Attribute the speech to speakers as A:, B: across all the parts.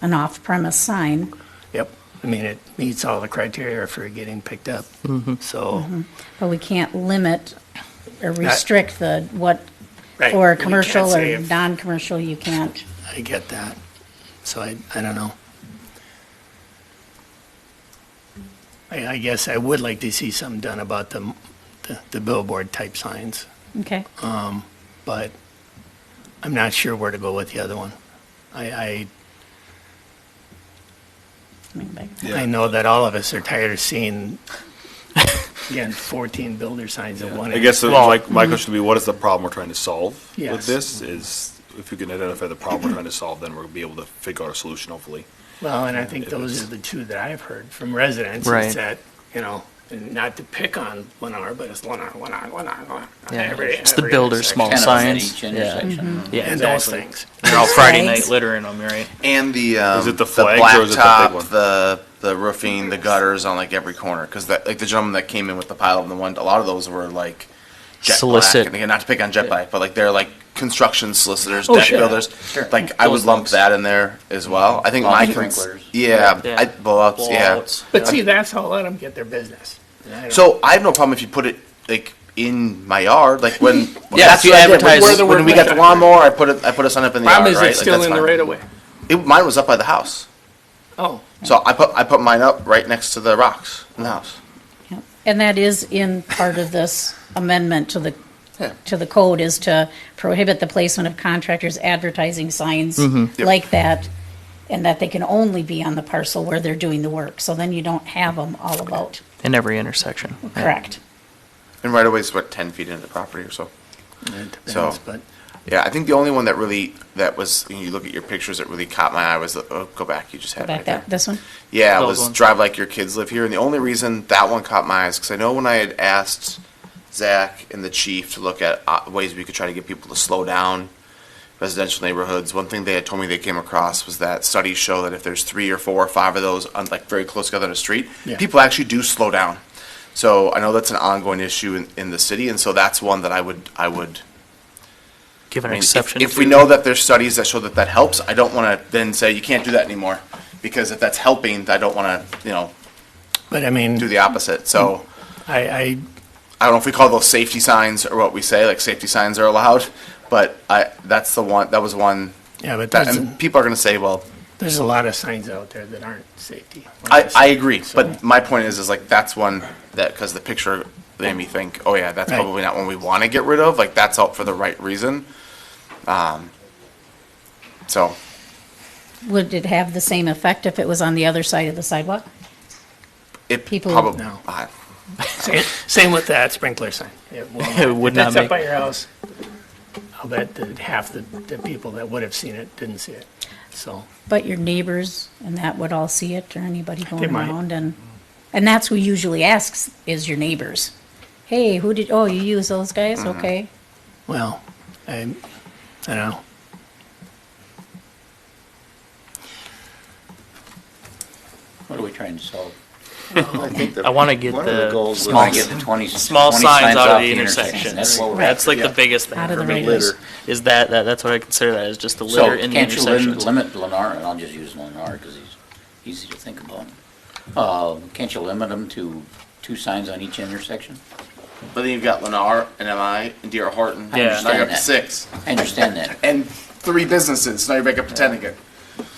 A: an off-premise sign.
B: Yep. I mean, it meets all the criteria for getting picked up. So,
A: But we can't limit or restrict the, what,
B: Right.
A: for
B: We can't
A: commercial
B: say
A: or
B: if-
A: non-commercial, you can't.
B: I get that. So I, I don't know. I, I guess I would like to see something done about the, the, the billboard type signs,
A: Okay.
B: but I'm not sure where to go with the other one. I, I
A: Let me back-
B: I know that all of us are tired of seeing, again, 14 builder signs at one.
C: I guess,
B: end.
C: uh, like, my question would be, what is the problem we're trying to solve
B: Yes.
C: with this? Is, if we can identify the problem we're trying to solve, then we'll be able to figure out a solution, hopefully.
B: Well, and I think those are the two that I've heard from residents.
D: Right.
B: Is that, you know, and not to pick on Lennar, but it's Lennar, Lennar, Lennar, Lennar.
D: Yeah,
B: every-
D: it's the
B: every
D: builder
B: intersection.
D: small
E: Kind of at
D: signs.
E: each intersection. huh?
D: Yeah,
B: And those
D: exactly.
B: things.
F: They're all Friday
A: Flags.
F: night littering them, right?
G: And the um,
C: Is it the flags or is it the big
G: blacktop,
C: one?
G: the the roofing, the gutters on like every corner because that like the gentleman that came in with the pile and the one a lot of those were like jet
D: Solicit.
G: black and again not to pick on jet black but like they're like construction solicitors
B: Oh,
G: deck
B: sure.
G: builders
E: Sure.
G: like I would
E: Those
G: lump
E: folks.
G: that in there as well I think
E: Lawn
G: my
E: sprinklers.
G: yeah,
D: Yeah.
G: Um, I, blowouts,
E: Blowouts.
G: yeah
B: But see, that's how let them get their business. And I don't-
G: so I have no problem if you put it like in my yard like when
D: Yeah, if you
G: what I did.
D: advertise-
G: when, when we got the lawnmower I put it I put a sign up in the
B: Problem
G: yard
B: is,
G: right
B: it's
G: Like,
B: still
G: that's
B: in the
G: fine.
B: right of way.
G: It- mine was up by the house.
B: Oh,
G: So I put I put mine up right next to the rocks in the house.
A: Yep. And that is in part of this amendment to the,
G: Yeah.
A: to the code, is to prohibit the placement of contractors advertising signs
F: Mm-hmm.
G: Yep.
A: like that, and that they can only be on the parcel where they're doing the work. So then you don't have them all about,
D: in every intersection. Yeah.
A: correct?
G: And right away it's what ten feet into the property or so.
B: it
G: So-
B: depends, but.
G: Yeah, I think the only one that really that was when you look at your pictures that really caught my eye was the oh, go back you just had it
A: Back
G: right there.
A: that, this one?
G: Yeah, it
D: Those
G: was
D: ones.
G: drive like your kids live here, and the only reason that one caught my eyes because I know when I had asked Zach and the chief to look at uh, ways we could try to get people to slow down residential neighborhoods, one thing they had told me they came across was that studies show that if there's three or four or five of those on like very close together on a street,
B: Yeah.
G: people actually do slow down. So I know that's an ongoing issue in, in the city, and so that's one that I would I would
D: Give an
G: I mean, if-
D: exception.
G: If we
D: to-
G: know that there's studies that show that that helps, I don't want to then say you can't do that anymore. Because if that's helping, I don't want to, you know,
B: But I mean,
G: do the opposite. So
B: I, I,
G: I don't know if we call those safety signs or what we say, like safety signs are allowed. But I, that's the one, that was one,
B: yeah, but
G: that,
B: there's,
G: and people are going to say, well,
B: there's a lot of signs out there that aren't safety.
G: I, I agree. But my point is, is like, that's one that, because the picture made me think, oh yeah, that's
B: Right.
G: probably not one we want to get rid of. Like, that's out for the right reason. Um, so
A: Would it have the same effect if it was on the other side of the sidewalk?
G: it
A: People-
G: probably,
B: No.
G: I-
B: Same- Same with that sprinkler sign. It will not-
D: It would
B: if
D: not
B: That's up
D: make-
B: by your house. I'll bet that half the, the people that would have seen it didn't see it. So,
A: But your neighbors and that would all see it, or anybody
B: They
A: going
B: might.
A: around, and, and that's who usually asks, is your neighbors. Hey, who did, oh, you use those guys?
B: Mm-hmm.
A: Okay.
B: well, I, I don't know.
E: What are we trying to solve?
D: I want to get
H: One of the
D: the
H: goals was-
D: small,
E: Trying to get the 20
D: small
E: 20
D: signs out
E: off
D: of the intersection.
E: That's what we're
D: That's like the biggest thing
A: Out of
D: for
A: the
D: me
A: radius.
D: is, is that, that, that's what I consider that, is just the
E: So
D: litter in the
E: can't you lim-
D: intersections.
E: limit Lennar, and I'll just use Lennar because he's easy to think about. Uh, Can't you limit them to two signs on each intersection?
G: But then you've got Lennar and MI and D.R. Horton.
D: Yeah.
G: Now you're up to
E: Understand that.
G: six.
E: I understand that.
G: And three businesses. Now you're back up to 10 again.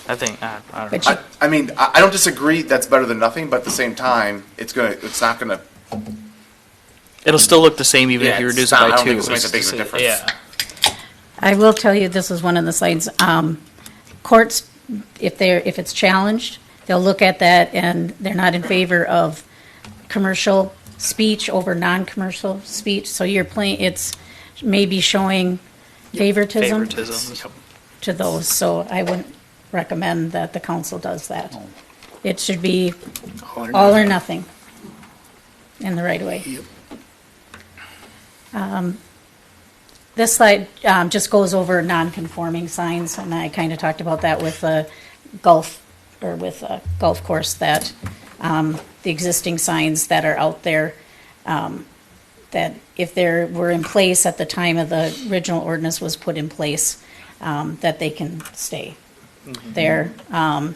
D: I think, I, I don't
A: But
D: know.
G: I, I mean, I, I don't disagree that's better than nothing, but at the same time, it's gonna, it's not gonna,
D: It'll still look the same even if
G: Yeah,
D: you
G: it's
D: reduce it
G: not-
D: by two.
G: I don't think it's gonna
D: It's
G: make a
D: just
G: big difference.
D: Yeah.
A: I will tell you, this is one of the signs, um, courts, if they're, if it's challenged, they'll look at that and they're not in favor of commercial speech over non-commercial speech, so you're playing, it's maybe showing favoritism
D: Favoritism.
A: to those, so I wouldn't recommend that the council does that. It should be all or nothing in the right way. Um, This slide um, just goes over non-conforming signs, and I kind of talked about that with the golf, or with a golf course, that um, the existing signs that are out there, um, that if they were in place at the time of the original ordinance was put in place, um, that they can stay there. Um,